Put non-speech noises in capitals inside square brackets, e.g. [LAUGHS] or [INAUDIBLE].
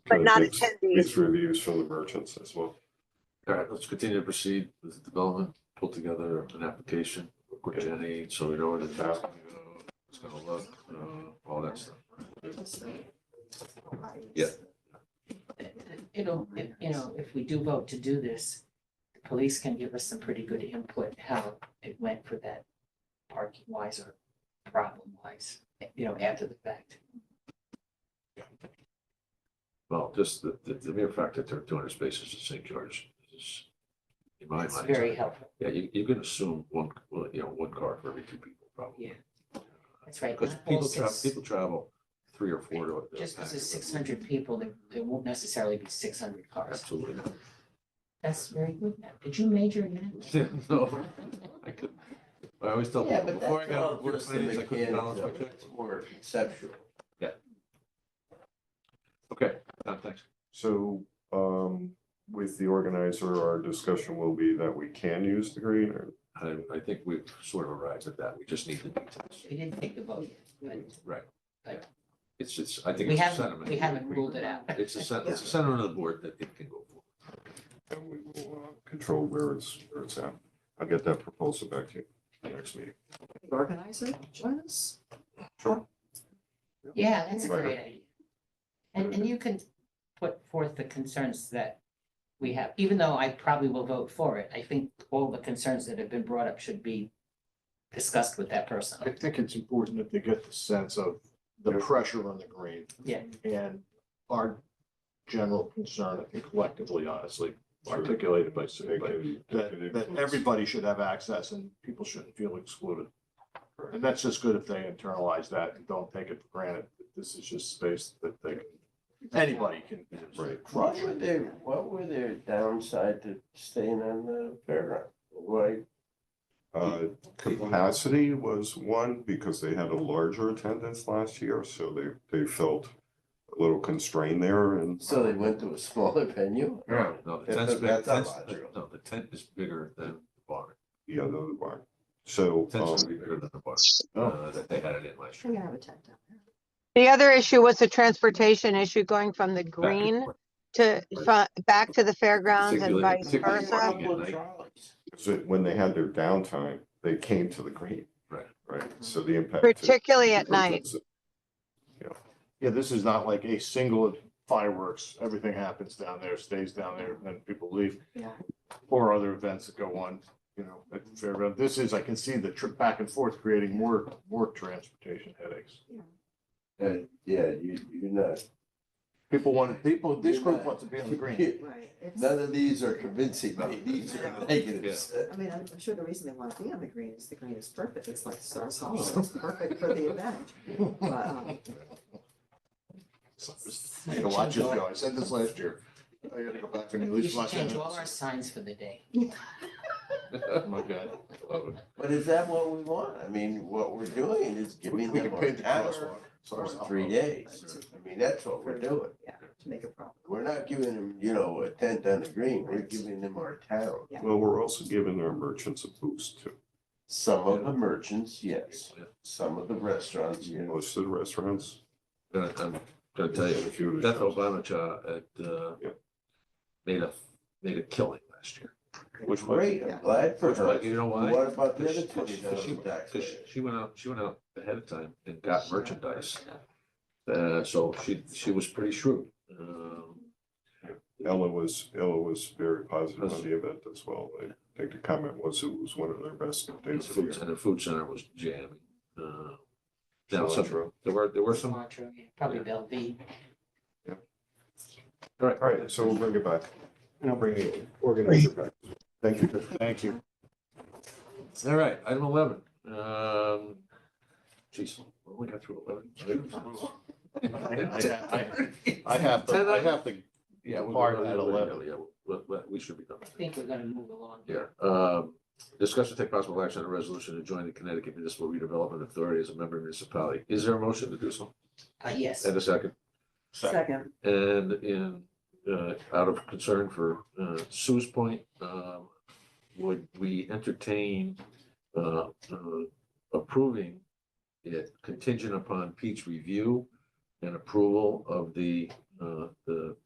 but not it's- attendees. It's reviews from the merchants as well. All right, let's continue to proceed with the development, pull together an application, work with Jenny, so we know where the task is gonna look, uh, all that stuff. You know, if, you know, if we do vote to do this, the police can give us some pretty good input how it went for that parking wise or problem wise, you know, after the fact. Well, just the, the, the mere fact that there are two hundred spaces at St. George is, in my It's mind. very helpful. Yeah, you, you can assume one, well, you know, one car for every two people, probably. Yeah. That's right. Because not all people travel, six- people travel three or four to. a- Just because it's six hundred people, there, there won't necessarily be six hundred cars. Absolutely [LAUGHS] not. That's very good. Matt. Did you major in that? No, I couldn't. I always tell Yeah, people, but before I that's got all work just the plans, I couldn't balance mechanics my of it. checks. It's more conceptual. Okay, uh, thanks. So um, with the organizer, our discussion will be that we can use the green or I, I think we've sort of arrived at that. We just need the details. We didn't take the vote yet, but Right. Right. It's, it's, I think we it's a haven't, sentiment. we haven't ruled it out. It's a, sen- it's a sentiment of the board that it can go forward. and we will uh, control where it's, where it's at. I'll get that proposal back to you next meeting. Organizer, join us. Sure. Yeah, that's a Right. great idea. And, and you can put forth the concerns that we have, even though I probably will vote for it, I think all the concerns that have been brought up should be discussed with that I person. think it's important that they get the sense of the pressure on the green. Yeah. And our general concern, I think collectively, honestly, articulated by Sue, but that, that everybody should have access and people shouldn't feel excluded. And that's just good if they internalize that and don't take it for granted. that This is just space that they, anybody can. Right. crush. What were their, what were their downside to staying on the fairground? Why, Uh, Capacity was one because they had a larger attendance last year, so they, they felt a little constrained there and so they went to a smaller [LAUGHS] venue? Yeah. No, the That's- tent's bigger, that's not tent's- logical. no, the tent is bigger than the bar. the other bar. So. The Tent's um, gonna be bigger than the bar, Oh. uh, that they had it in last We're year. gonna have a tent down there. The other issue was the transportation issue going from the Back and green forth, [LAUGHS] to, fro- back to the fairgrounds and Particularly- vice particularly versa. walking at night. So when they had their downtime, they came to the green. Right. Right, so the impact. to- Particularly at night. Yeah, this is not like a single fireworks, everything happens down there, stays down there, and then people leave. Yeah. Or other events that go on, you know, at the fairground. This is, I can see the trip back and forth creating more, more transportation headaches. Uh, yeah, you, you're not, People want, people, this group wants to be on the green. Right. It's- [LAUGHS] none of these are convincing me, [LAUGHS] these are negatives. I mean, I'm I'm sure the reason they want to be on the green is the green is perfect. It's like Stars Hollow. It's perfect for the event. But, um, So I just need to watch this go. I said this last year. I gotta go back and at You least should watch change it. all our signs for the day. Oh my God. Love it. But is that what we want? I mean, what we're doing is We giving we them can paint the an hour crosswalk. or Sorry. three days. I mean, that's what we're doing. yeah, to make a problem. We're not giving them, you know, a tent on the green, we're giving them our town. Well, we're also giving our merchants a boost too. Some of the merchants, yes, some of the restaurants, you know. Most of the restaurants. Gonna- I'm gonna tell you, huge. Beth Obama at, uh, Yeah. made a, made a killing last year. Which way? Great, I'm glad for Which, her. like, you know why? What about the other Because twenty she- 'cause she- thousand tax? 'cause she- she went out, she went out ahead of time and got merchandise. Uh, so she, she was pretty shrewd. Um, Ella was, Ella was very positive on the event as well. I think the comment was it was one of their best And days of the the food- year. and the food center was jamming. Uh, Now, some, Cilantro. there were, there were some, all Sumatra, yeah, Probably Bellevue. right, All right, so we'll bring it back. And I'll bring the organizer back. Thank you. Thank you. all right, item eleven. Um, geez, we only got through eleven. [LAUGHS] I I- I have to, I have to Yeah. we- Part at we- 11. Yeah, we- we- we should be done. I think we're gonna move along. Here, um, discuss and take possible action on a resolution to join the Connecticut Municipal Redevelopment Authority as a member municipality. Is there a motion to do so? Uh, yes. And a second, Second, and in, uh, out of concern for, uh, Sue's point, um, would we entertain, uh, uh, approving it contingent upon Pete's review and approval of the, uh, the